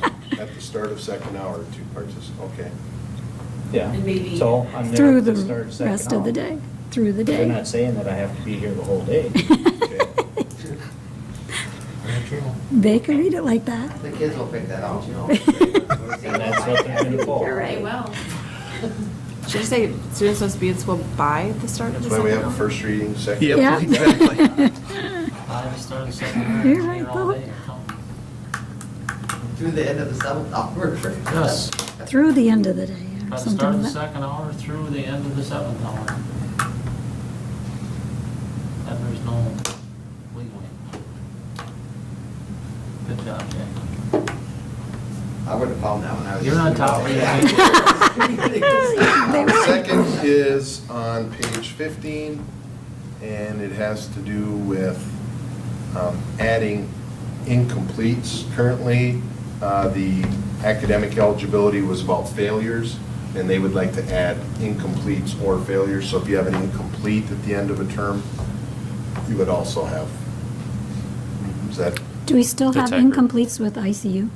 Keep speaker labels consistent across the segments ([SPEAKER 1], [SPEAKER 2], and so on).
[SPEAKER 1] at the start of second hour to participate, okay.
[SPEAKER 2] Yeah.
[SPEAKER 3] And maybe-
[SPEAKER 2] So I'm there
[SPEAKER 4] through
[SPEAKER 2] at
[SPEAKER 4] the
[SPEAKER 2] start second
[SPEAKER 4] rest of the
[SPEAKER 2] hour.
[SPEAKER 4] day, through the
[SPEAKER 2] They're
[SPEAKER 4] day.
[SPEAKER 2] not saying that I have to be here the whole day.
[SPEAKER 4] They could read it like that.
[SPEAKER 5] The kids will pick that out, you know.
[SPEAKER 2] And that's what they're gonna call.
[SPEAKER 3] You're right, well,
[SPEAKER 6] Should I say students must be in school by the start of
[SPEAKER 1] That's
[SPEAKER 6] the
[SPEAKER 1] why
[SPEAKER 6] second
[SPEAKER 1] we have a
[SPEAKER 6] hour?
[SPEAKER 1] first reading, second.
[SPEAKER 7] Yep,
[SPEAKER 4] Yeah.
[SPEAKER 7] exactly.
[SPEAKER 8] I just started second hour,
[SPEAKER 4] You're
[SPEAKER 8] it's
[SPEAKER 4] right,
[SPEAKER 8] here all
[SPEAKER 4] though.
[SPEAKER 8] day or something.
[SPEAKER 5] Through the end of the seventh hour.
[SPEAKER 8] Yes.
[SPEAKER 4] Through the end of the day
[SPEAKER 8] By
[SPEAKER 4] or
[SPEAKER 8] the
[SPEAKER 4] something
[SPEAKER 8] start of the
[SPEAKER 4] like that.
[SPEAKER 8] second hour through the end of the seventh hour. And there's no leeway. Good job, Jack.
[SPEAKER 5] I would have found that when I was.
[SPEAKER 8] You're on top of
[SPEAKER 4] Oh, They
[SPEAKER 1] The
[SPEAKER 4] were.
[SPEAKER 1] Second is on page 15, and it has to do with um, adding incompletes. Currently, uh, the academic eligibility was about failures, and they would like to add incompletes or failures. So if you have an incomplete at the end of a term, you would also have, is that,
[SPEAKER 4] Do we still
[SPEAKER 9] The
[SPEAKER 4] have
[SPEAKER 9] tiger.
[SPEAKER 4] incompletes with ICU?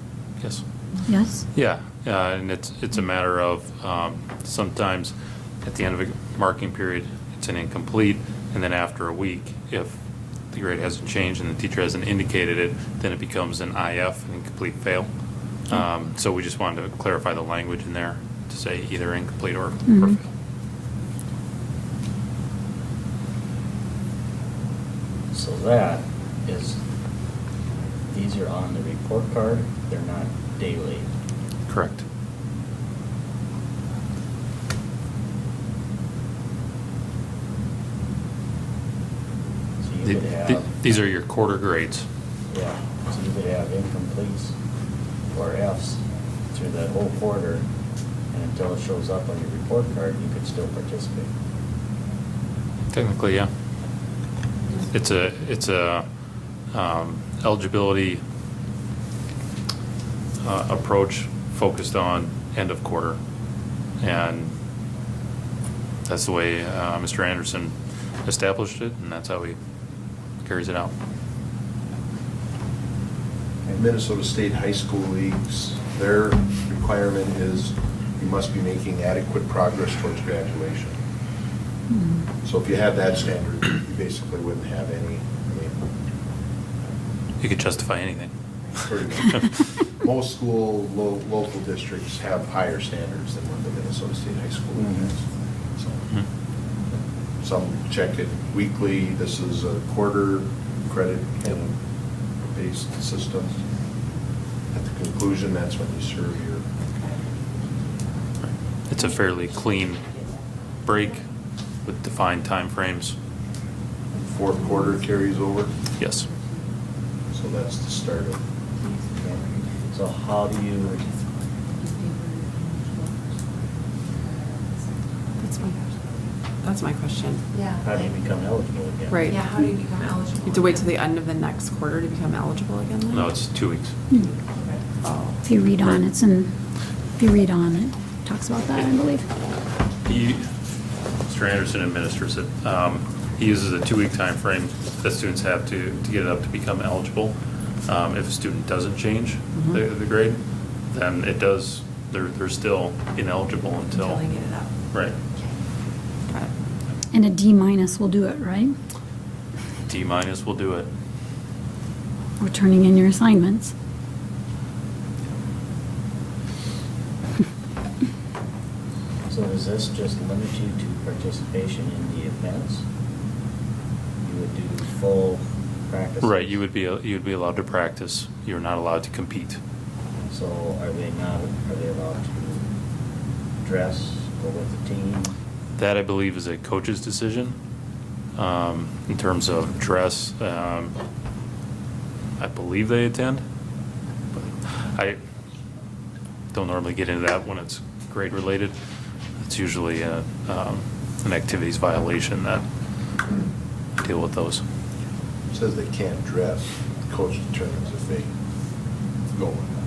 [SPEAKER 9] Yes.
[SPEAKER 4] Yes?
[SPEAKER 9] Yeah, uh, and it's, it's a matter of, um, sometimes at the end of a marking period, it's an incomplete, and then after a week, if the grade hasn't changed and the teacher hasn't indicated it, then it becomes an IF, an incomplete fail. Um, So we just wanted to clarify the language in there to say either incomplete or or
[SPEAKER 4] Mhm.
[SPEAKER 9] fail.
[SPEAKER 2] So that is, these are on the report card, they're not daily.
[SPEAKER 9] Correct.
[SPEAKER 2] So
[SPEAKER 9] The-
[SPEAKER 2] you could
[SPEAKER 9] the-
[SPEAKER 2] have,
[SPEAKER 9] These are your quarter grades.
[SPEAKER 2] yeah, so you could have incompletes or Fs through that whole quarter, and until it shows up on your report card, you could still participate.
[SPEAKER 9] Technically, yeah. It's a, it's a um, eligibility uh, approach focused on end of quarter. And that's the way uh, Mr. Anderson established it, and that's how he carries it out.
[SPEAKER 1] Minnesota State High School Leagues, their requirement is you must be making adequate progress towards graduation.
[SPEAKER 4] Hmm.
[SPEAKER 1] So if you had that standard, you basically wouldn't have any, I mean,
[SPEAKER 9] You could justify anything.
[SPEAKER 1] pretty much. Most school, lo- local districts have higher standards than what the Minnesota State High School League has.
[SPEAKER 9] Mhm.
[SPEAKER 1] So Some check it weekly, this is a quarter credit kind of based system. At the conclusion, that's when you serve your
[SPEAKER 9] It's a fairly clean break with defined timeframes.
[SPEAKER 1] fourth quarter carries over,
[SPEAKER 9] Yes.
[SPEAKER 1] so that's the start of.
[SPEAKER 2] So how do you,
[SPEAKER 6] That's my, that's my question.
[SPEAKER 3] yeah.
[SPEAKER 2] how do you become eligible again?
[SPEAKER 6] Right.
[SPEAKER 3] Yeah, how do you become eligible?
[SPEAKER 6] You have to wait till the end of the next quarter to become eligible again then?
[SPEAKER 9] No, it's two weeks.
[SPEAKER 6] Oh.
[SPEAKER 4] If you read on, it's in, if you read on, it talks about that, I believe.
[SPEAKER 9] He, Mr. Anderson administers it. Um, He uses a two-week time frame that students have to, to get it up to become eligible. Um, If a student doesn't change
[SPEAKER 6] Mm-hmm.
[SPEAKER 9] the, the grade, then it does, they're, they're still ineligible
[SPEAKER 6] Until
[SPEAKER 9] until,
[SPEAKER 6] they get it up.
[SPEAKER 9] right,
[SPEAKER 6] Got it.
[SPEAKER 4] And a D minus will do it, right?
[SPEAKER 9] D minus will do it.
[SPEAKER 4] Or turning in your assignments.
[SPEAKER 2] So does this just limit you to participation in the events? You would do full practice?
[SPEAKER 9] Right, you would be, you would be allowed to practice, you're not allowed to compete.
[SPEAKER 2] So are they not, are they allowed to dress, go with the team?
[SPEAKER 9] That, I believe, is a coach's decision um, in terms of dress. um, I believe they attend. but I don't normally get into that when it's grade-related. It's usually a, um, an activities violation that deal with those.
[SPEAKER 1] Says they can't dress, coach determines if they go or not.